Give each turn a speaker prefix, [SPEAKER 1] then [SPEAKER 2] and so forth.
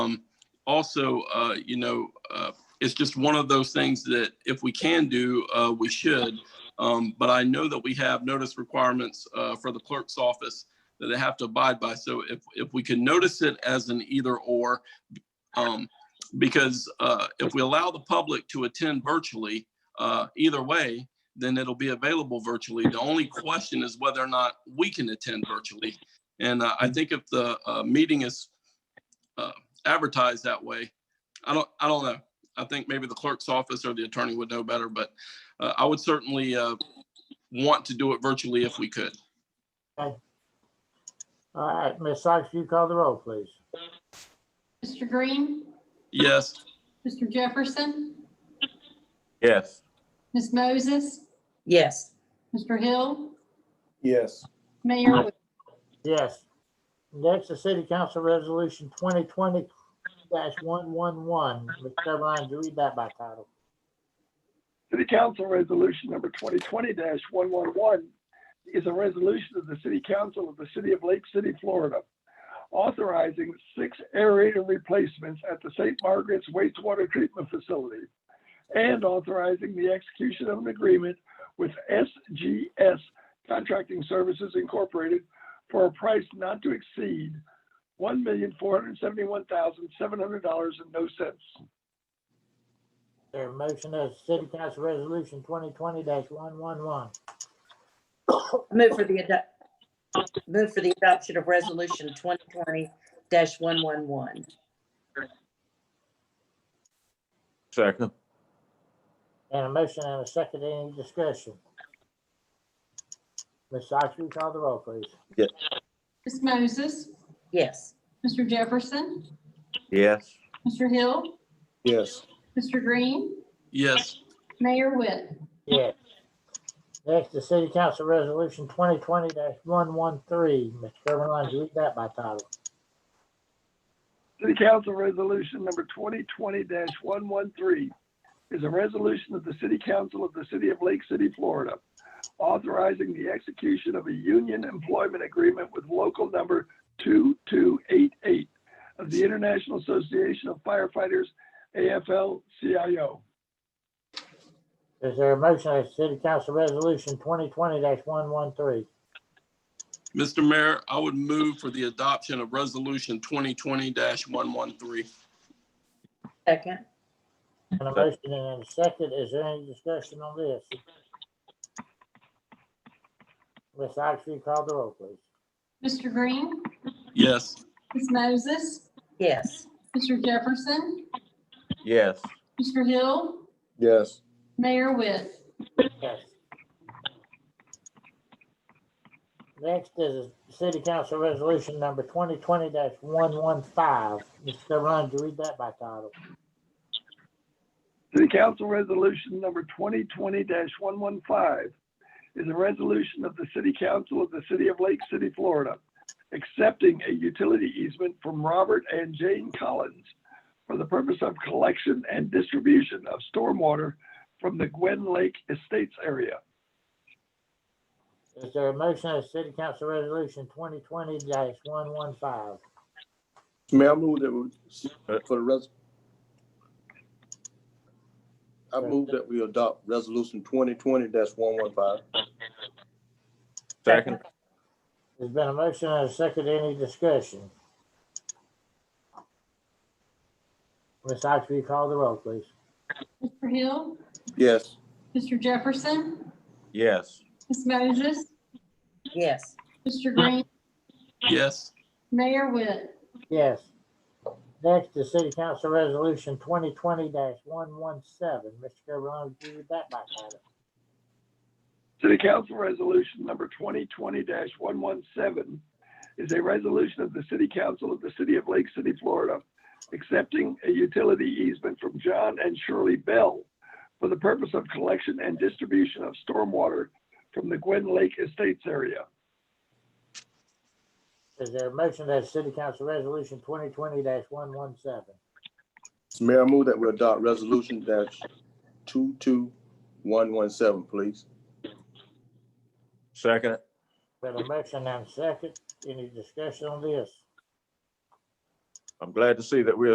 [SPEAKER 1] also, uh, you know, uh, it's just one of those things that if we can do, uh, we should. Um, but I know that we have notice requirements, uh, for the clerk's office that they have to abide by. So if, if we can notice it as an either or, um, because, uh, if we allow the public to attend virtually, uh, either way, then it'll be available virtually. The only question is whether or not we can attend virtually. And uh, I think if the, uh, meeting is, uh, advertised that way. I don't, I don't know. I think maybe the clerk's office or the attorney would know better, but uh, I would certainly uh, want to do it virtually if we could.
[SPEAKER 2] All right, Ms. Sykes, you call the roll, please.
[SPEAKER 3] Mr. Green,
[SPEAKER 1] Yes,
[SPEAKER 3] Mr. Jefferson,
[SPEAKER 4] Yes.
[SPEAKER 3] Ms. Moses,
[SPEAKER 5] Yes,
[SPEAKER 3] Mr. Hill,
[SPEAKER 4] Yes.
[SPEAKER 3] Mayor, Wi-
[SPEAKER 2] Yes. Next, the City Council Resolution twenty twenty one one one. Mr. Carline, do you read that by title?
[SPEAKER 6] City Council Resolution Number 2020-111 is a resolution of the City Council of the City of Lake City, Florida, authorizing six aerator replacements at the St. Margaret's wastewater treatment facility and authorizing the execution of an agreement with SGS Contracting Services Incorporated for a price not to exceed $1,471,700 and no cents.
[SPEAKER 2] There a motion as City Council Resolution twenty twenty one one one.
[SPEAKER 5] I move for the adopt, move for the adoption of resolution twenty twenty one one one.
[SPEAKER 4] Second.
[SPEAKER 2] And a motion and a second, any discussion? Ms. Sykes, you call the roll, please.
[SPEAKER 3] Ms. Moses,
[SPEAKER 5] Yes,
[SPEAKER 3] Mr. Jefferson,
[SPEAKER 4] Yes.
[SPEAKER 3] Mr. Hill,
[SPEAKER 4] Yes.
[SPEAKER 3] Mr. Green,
[SPEAKER 1] yes,
[SPEAKER 3] Mayor Witt,
[SPEAKER 2] Yes. Next, the City Council Resolution twenty twenty one one three. Mr. Carline, do you read that by title?
[SPEAKER 6] City Council Resolution number twenty twenty one one three is a resolution of the City Council of the City of Lake City, Florida, authorizing the execution of a union employment agreement with local number two two eight eight of the International Association of Firefighters, AFL-CIO.
[SPEAKER 2] Is there a motion as City Council Resolution twenty twenty one one three?
[SPEAKER 1] Mr. Mayor, I would move for the adoption of Resolution 2020-113.
[SPEAKER 5] second.
[SPEAKER 2] And a motion and a second, is there any discussion on this? Ms. Sykes, will you call the roll, please.
[SPEAKER 3] Mr. Green,
[SPEAKER 1] Yes,
[SPEAKER 3] Ms. Moses,
[SPEAKER 5] Yes,
[SPEAKER 3] Mr. Jefferson,
[SPEAKER 4] Yes.
[SPEAKER 3] Mr. Hill,
[SPEAKER 4] Yes.
[SPEAKER 3] Mayor Witt,
[SPEAKER 2] Yes. Next is City Council Resolution Number twenty twenty one one five. Mr. Run, do you read that by title?
[SPEAKER 6] City Council Resolution number twenty twenty one one five is a resolution of the City Council of the City of Lake City, Florida, accepting a utility easement from Robert and Jane Collins for the purpose of collection and distribution of stormwater from the Gwen Lake Estates area.
[SPEAKER 2] Is there a motion as City Council Resolution twenty twenty one one five?
[SPEAKER 7] Mayor, I move that we, for the res. I move that we adopt resolution twenty twenty one one five.
[SPEAKER 4] Second.
[SPEAKER 2] There's been a motion and a second, any discussion? Ms. Sykes, will you call the roll, please?
[SPEAKER 3] Mr. Hill,
[SPEAKER 7] Yes,
[SPEAKER 3] Mr. Jefferson,
[SPEAKER 4] Yes.
[SPEAKER 3] Ms. Moses,
[SPEAKER 5] yes,
[SPEAKER 3] Mr. Green,
[SPEAKER 1] yes,
[SPEAKER 3] Mayor Witt,
[SPEAKER 2] Yes. Next is City Council Resolution twenty twenty one one seven. Mr. Kirbyland, do you read that by title?
[SPEAKER 6] City Council Resolution number twenty twenty one one seven is a resolution of the City Council of the City of Lake City, Florida, accepting a utility easement from John and Shirley Bell for the purpose of collection and distribution of stormwater from the Gwen Lake Estates area.
[SPEAKER 2] Is there a motion that City Council Resolution twenty twenty one one seven?
[SPEAKER 7] Mayor, I move that we adopt resolution dash two two one one seven, please.
[SPEAKER 4] Second.
[SPEAKER 2] Got a motion and a second. Any discussion on this?
[SPEAKER 4] I'm glad to see that we're